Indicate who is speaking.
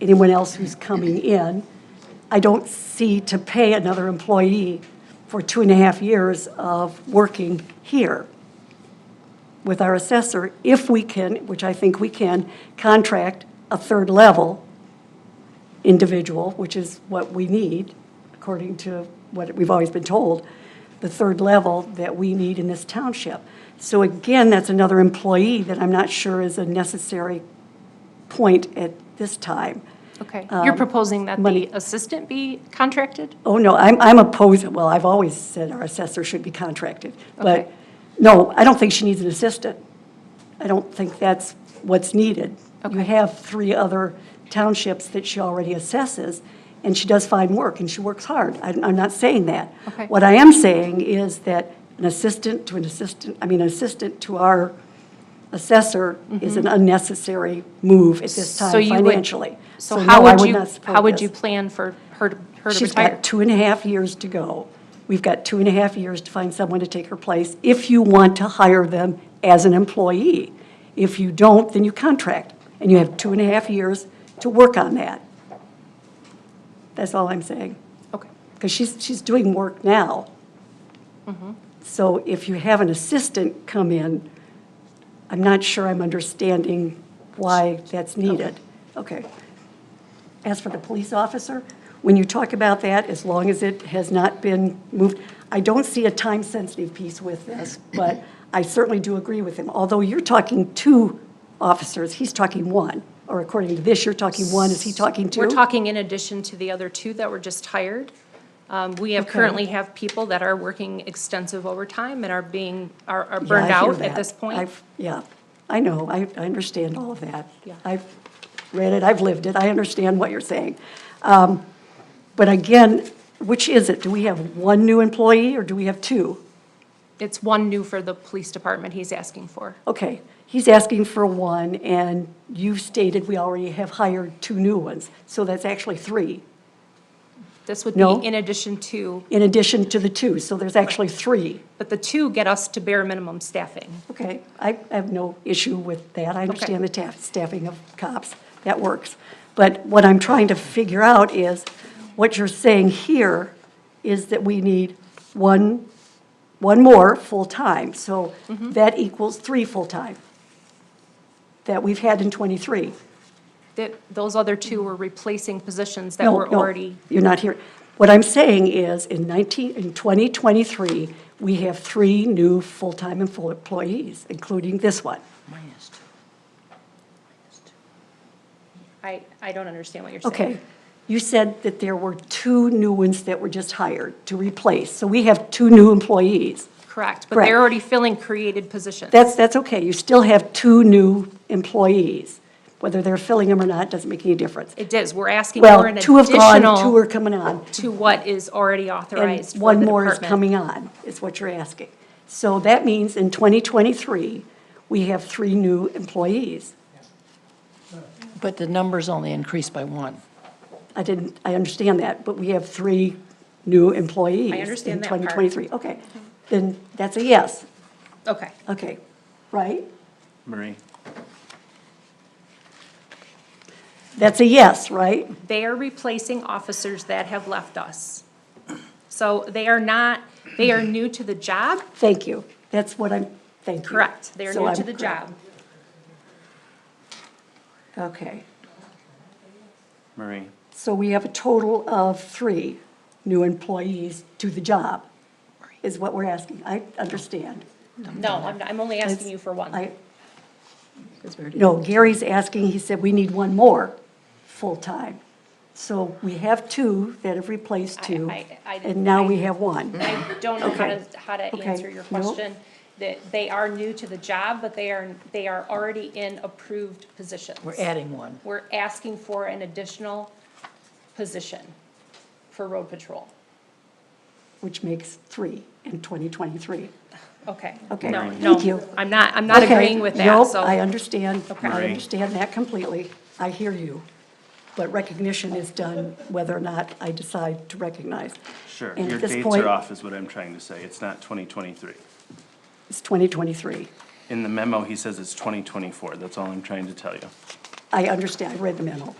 Speaker 1: anyone else who's coming in. I don't see to pay another employee for two and a half years of working here with our assessor, if we can, which I think we can, contract a third level individual, which is what we need, according to what we've always been told, the third level that we need in this township. So again, that's another employee that I'm not sure is a necessary point at this time.
Speaker 2: Okay, you're proposing that
Speaker 1: Um, money-
Speaker 2: the assistant be contracted?
Speaker 1: Oh, no, I'm, I'm opposed, well, I've always said our assessor should be contracted. But,
Speaker 2: Okay.
Speaker 1: no, I don't think she needs an assistant. I don't think that's what's needed. You
Speaker 2: Okay.
Speaker 1: have three other townships that she already assesses, and she does fine work, and she works hard. I'm, I'm not saying that.
Speaker 2: Okay.
Speaker 1: What I am saying is that an assistant to an assistant, I mean, an assistant to our assessor is an unnecessary move at this time
Speaker 2: Mm-hmm. So you would-
Speaker 1: financially.
Speaker 2: So
Speaker 1: no,
Speaker 2: how
Speaker 1: I
Speaker 2: would you,
Speaker 1: not support
Speaker 2: how would
Speaker 1: this.
Speaker 2: you plan for her, to- her to
Speaker 1: She's
Speaker 2: retire?
Speaker 1: got two and a half years to go. We've got two and a half years to find someone to take her place if you want to hire them as an employee. If you don't, then you contract, and you have two and a half years to work on that. That's all I'm saying,
Speaker 2: Okay,
Speaker 1: because she's, she's doing work now. Mm-hmm. So if you have an assistant come in, I'm not sure I'm understanding why that's needed. Okay. As for the police officer, when you talk about that, as long as it has not been moved, I don't see a time-sensitive piece with this, but I certainly do agree with him. Although you're talking two officers, he's talking one, or according to this, you're talking one, is he talking 2
Speaker 2: we're talking in addition to the other two that were just hired. Um, We have, currently have people that are working extensive overtime and are being, are
Speaker 1: Yeah,
Speaker 2: are
Speaker 1: I
Speaker 2: burned
Speaker 1: hear
Speaker 2: out at
Speaker 1: that.
Speaker 2: this point.
Speaker 1: I've- Yeah, I know, I, I understand all of that.
Speaker 2: Yeah.
Speaker 1: I've read it, I've lived it, I understand what you're saying. Um, But again, which is it? Do we have one new employee or do we have two?
Speaker 2: It's one new for the police department he's asking for.
Speaker 1: Okay, he's asking for one, and you've stated we already have hired two new ones, so that's actually three,
Speaker 2: This would
Speaker 1: No.
Speaker 2: be in addition to,
Speaker 1: in addition to the two, so there's actually three.
Speaker 2: but the two get us to bare minimum staffing.
Speaker 1: Okay, I I have no issue with that. I understand the ta- staffing of cops, that works. But what I'm trying to figure out is, what you're saying here is that we need one, one more full-time. So
Speaker 2: Mm-hmm.
Speaker 1: that equals three full-time that we've had in '23.
Speaker 2: That, those other two were replacing positions that
Speaker 1: No,
Speaker 2: were
Speaker 1: no,
Speaker 2: already,
Speaker 1: You're not here. What I'm saying is, in 19, in 2023, we have three new full-time and full employees, including this one.
Speaker 3: Minus two. Minus two.
Speaker 2: I, I don't understand what you're saying.
Speaker 1: Okay, you said that there were two new ones that were just hired to replace, so we have two new employees.
Speaker 2: Correct, but they're
Speaker 1: Correct.
Speaker 2: already filling created positions.
Speaker 1: That's, that's okay, you still have two new employees. Whether they're filling them or not doesn't make any difference.
Speaker 2: It is, we're asking for
Speaker 1: Well,
Speaker 2: an
Speaker 1: two have gone, two are
Speaker 2: additional
Speaker 1: coming on,
Speaker 2: to what is already
Speaker 1: and
Speaker 2: authorized for
Speaker 1: one
Speaker 2: the
Speaker 1: more is
Speaker 2: department.
Speaker 1: coming on, is what you're asking. So that means in 2023, we have three new employees.
Speaker 3: But the numbers only increased by one.
Speaker 1: I didn't, I understand that, but we have three new employees.
Speaker 2: understand that part.
Speaker 1: In 2023, okay. Then that's a yes.
Speaker 2: Okay,
Speaker 1: Okay, right?
Speaker 4: Marie?
Speaker 1: That's a yes, right?
Speaker 2: they are replacing officers that have left us. So they are not, they are new to the job,
Speaker 1: Thank you. That's what I'm, thank you.
Speaker 2: correct, they are
Speaker 1: So
Speaker 2: new to
Speaker 1: I'm
Speaker 2: the
Speaker 1: correct.
Speaker 2: job.
Speaker 1: Okay,
Speaker 4: Marie?
Speaker 1: so we have a total of three new employees to the job, is what we're asking. I understand.
Speaker 2: No, I'm, I'm only asking you for one.
Speaker 1: I, no, Gary's asking, he said, we need one more full-time. So we have two that have replaced two,
Speaker 2: I- I- I-
Speaker 1: and now we
Speaker 2: I-
Speaker 1: have one.
Speaker 2: I don't know how to, how to
Speaker 1: Okay.
Speaker 2: answer your
Speaker 1: Nope.
Speaker 2: question, that they are new to the job, but they are, they are already in approved positions.
Speaker 3: We're adding one.
Speaker 2: we're asking for an additional position for road patrol.
Speaker 1: which makes three in 2023.
Speaker 2: Okay.
Speaker 1: Okay,
Speaker 2: No,
Speaker 1: thank
Speaker 2: no,
Speaker 1: you.
Speaker 2: I'm not, I'm not
Speaker 1: Okay,
Speaker 2: agreeing with that,
Speaker 1: nope,
Speaker 2: so.
Speaker 1: I understand, I
Speaker 4: Marie.
Speaker 1: understand that completely. I hear you. But recognition is done whether or not I decide to recognize.
Speaker 4: Sure,
Speaker 1: And
Speaker 4: your
Speaker 1: at this
Speaker 4: dates
Speaker 1: point,
Speaker 4: are off is what I'm trying to say. It's not 2023.
Speaker 1: It's 2023.
Speaker 4: In the memo, he says it's 2024. That's all I'm trying to tell you.
Speaker 1: I understand, I read the memo.